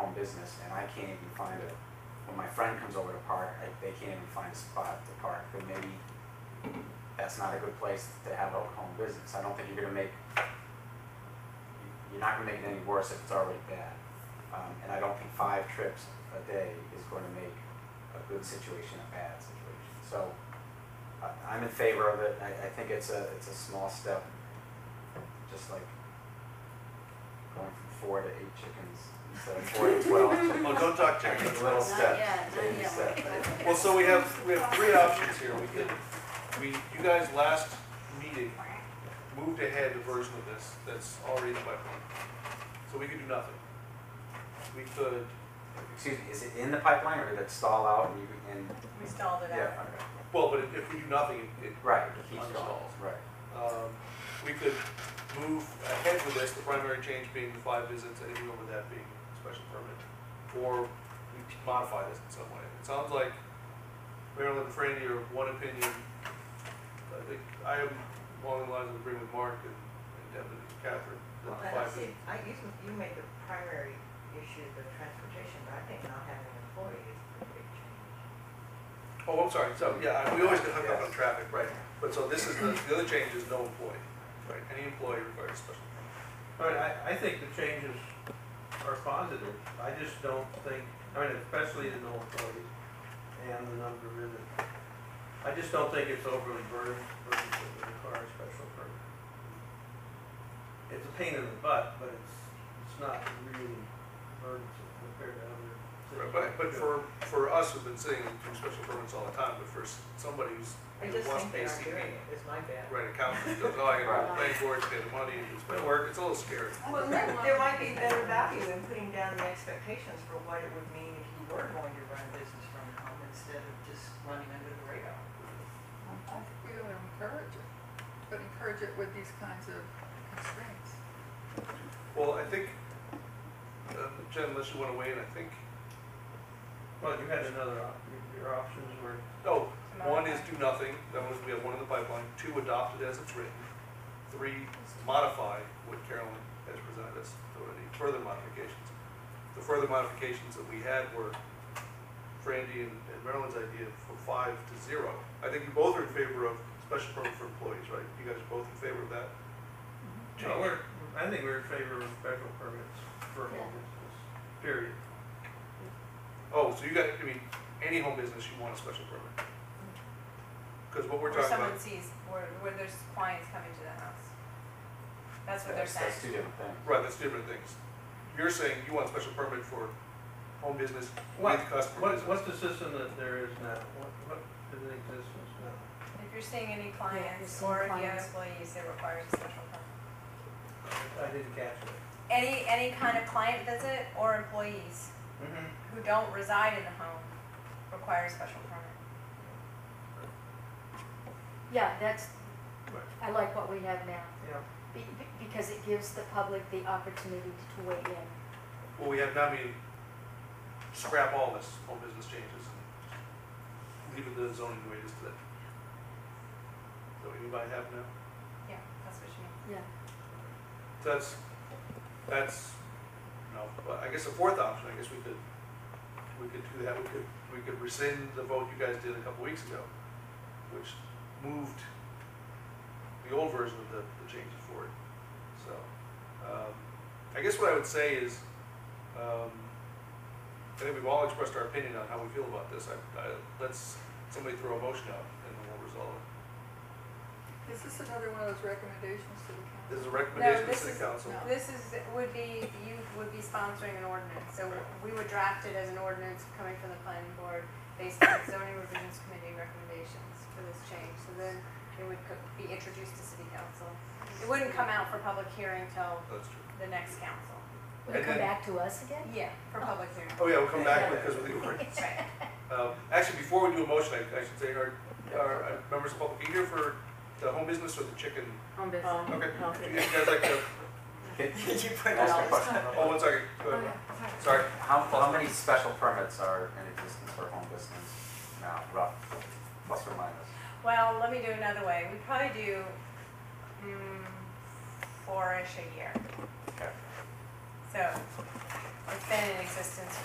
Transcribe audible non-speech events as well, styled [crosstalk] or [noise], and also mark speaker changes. Speaker 1: business and I can't even find a, when my friend comes over to park, I, they can't even find a spot to park, then maybe that's not a good place to have a home business. I don't think you're gonna make, you're not gonna make it any worse if it's already bad. Um, and I don't think five trips a day is going to make a good situation a bad situation. So I, I'm in favor of it. I, I think it's a, it's a small step, just like going from four to eight chickens instead of four to twelve.
Speaker 2: Well, don't talk
Speaker 1: Take
Speaker 2: chickens.
Speaker 1: a little step.
Speaker 3: yet,
Speaker 1: Take a
Speaker 3: not
Speaker 1: step.
Speaker 2: Well, so we have, we have three options here. We could, we, you guys last meeting moved ahead a version of this that's already in the pipeline. So we could do nothing. We could,
Speaker 1: Excuse me, is it in the pipeline or did it stall out and you, and,
Speaker 4: We stalled it
Speaker 1: yeah,
Speaker 4: out.
Speaker 1: okay.
Speaker 2: well, but if we do nothing, it, it,
Speaker 1: Right, it keeps
Speaker 2: On the
Speaker 1: going,
Speaker 2: stalls.
Speaker 1: right.
Speaker 2: um, we could move ahead with this, the primary change being the five visits, anything over that being special permit. Or we could modify this in some way. It sounds like Marilyn and Franny are of one opinion. I think I am along the lines of agreeing with Mark and and Devin and Catherine. that
Speaker 5: Well,
Speaker 2: the
Speaker 5: I
Speaker 2: five
Speaker 5: don't
Speaker 2: is-
Speaker 5: see, I, you, you made the primary issue the transportation, but I think not having an employee is a big change.
Speaker 2: Oh, I'm sorry, so, yeah, I- we always get hooked up on
Speaker 1: Yes.
Speaker 2: traffic, right. But so this is, the, the other change is no employee, right? Any employee requires special permit.
Speaker 6: All right, I, I think the changes are positive. I just don't think, I mean, especially the null employees and the number of visits. I just don't think it's overly burden, burdensome to require a special permit. It's a pain in the butt, but it's, it's not really burdensome compared to other
Speaker 2: Right, But,
Speaker 6: cities.
Speaker 2: but for, for us who've been sitting through special permits all the time, but for s- somebody who's
Speaker 5: I just
Speaker 2: wants
Speaker 5: think they aren't
Speaker 2: AC,
Speaker 5: doing it, it's my bad.
Speaker 2: right, accountant, goes, oh, I gotta
Speaker 1: Right.
Speaker 2: pay for it, pay the money, and it's gonna work, it's a little scary.
Speaker 5: Well, there, there might be better value in putting down the expectations for what it would mean if you were going to run a business from home instead of just running under the radar.
Speaker 7: I think we ought to encourage it, but encourage it with these kinds of constraints.
Speaker 2: Well, I think, uh, Jen, unless you wanna weigh in, I think,
Speaker 6: Well, you had another, op- your- your options were,
Speaker 2: no, one is do nothing, that was, we have one in the pipeline, two, adopt it as it's written, three, modify what Carolyn has presented us, there were any further modifications. The further modifications that we had were Frandy and and Marilyn's idea for five to zero. I think you both are in favor of special permit for employees, right? You guys are both in favor of that?
Speaker 6: no, we're, I think we're in favor of special permits for
Speaker 3: Yeah.
Speaker 6: home business, period.
Speaker 2: Oh, so you got, I mean, any home business, you want a special permit? Because what we're
Speaker 4: Where
Speaker 2: talking about,
Speaker 4: someone sees, where, where there's clients coming to the house. That's what they're
Speaker 1: That's, that's two
Speaker 4: saying.
Speaker 1: different things.
Speaker 2: right, that's different things. You're saying you want a special permit for home business
Speaker 6: What-
Speaker 2: with customer
Speaker 6: What,
Speaker 2: business.
Speaker 6: what's the system that there is now? What, what is in existence now?
Speaker 4: If you're seeing any
Speaker 7: you're
Speaker 4: clients
Speaker 7: seeing
Speaker 4: or if you have
Speaker 7: clients.
Speaker 4: employees, it requires a special permit.
Speaker 6: I didn't catch it.
Speaker 4: Any, any kind of client visit or employees who don't reside in the home require a special permit.
Speaker 8: [laughs] Yeah, that's, I
Speaker 6: Right.
Speaker 8: like what we have now,
Speaker 6: Yeah.
Speaker 8: be- be- because it gives the public the opportunity to weigh in.
Speaker 2: Well, we have, now mean, scrap all this home business changes and leave it the zoning the way it is today. Is that what you might have now?
Speaker 4: Yeah, that's what you mean.
Speaker 2: So that's, that's, no, but I guess the fourth option, I guess we could, we could do that, we could, we could rescind the vote you guys did a couple weeks ago, which moved the old version of the, the changes forward, so. um, I guess what I would say is, um, I think we've all expressed our opinion on how we feel about this, I, I, let's, somebody throw a motion out and then we'll resolve it.
Speaker 7: Is this another one of those recommendations to the council?
Speaker 2: This is a recommendation to the
Speaker 4: this
Speaker 2: city
Speaker 4: is-
Speaker 2: council.
Speaker 7: no.
Speaker 4: This is, would be, you would be sponsoring an ordinance, so we would draft it as an ordinance coming from the planning board based on zoning revisions committee recommendations for this change, so then it would co- be introduced to city council. It wouldn't come out for public hearing till
Speaker 2: That's true.
Speaker 4: the next council.
Speaker 8: Will it
Speaker 2: And
Speaker 8: come
Speaker 2: then-
Speaker 8: back to us again?
Speaker 4: Yeah. For public hearing.
Speaker 2: Oh, yeah, we'll come back because of the
Speaker 7: [laughs]
Speaker 2: ordinance.
Speaker 4: Right.
Speaker 2: Um, Actually, before we do a motion, I I should say, are, are uh, members of the public, are you here for the home business or the chicken?
Speaker 7: On this.
Speaker 2: Okay, do you guys like to,
Speaker 1: Can- can
Speaker 4: [laughs]
Speaker 5: you put
Speaker 1: I ask a question?
Speaker 2: oh, one second, go
Speaker 7: Oh,
Speaker 2: ahead.
Speaker 7: yeah, sorry.
Speaker 2: Sorry,
Speaker 1: How, how many special permits are in existence for home business now, rough, plus or minus?
Speaker 4: Well, let me do another way. We probably do, mm, four-ish a year.
Speaker 1: Okay.
Speaker 4: So It's been in existence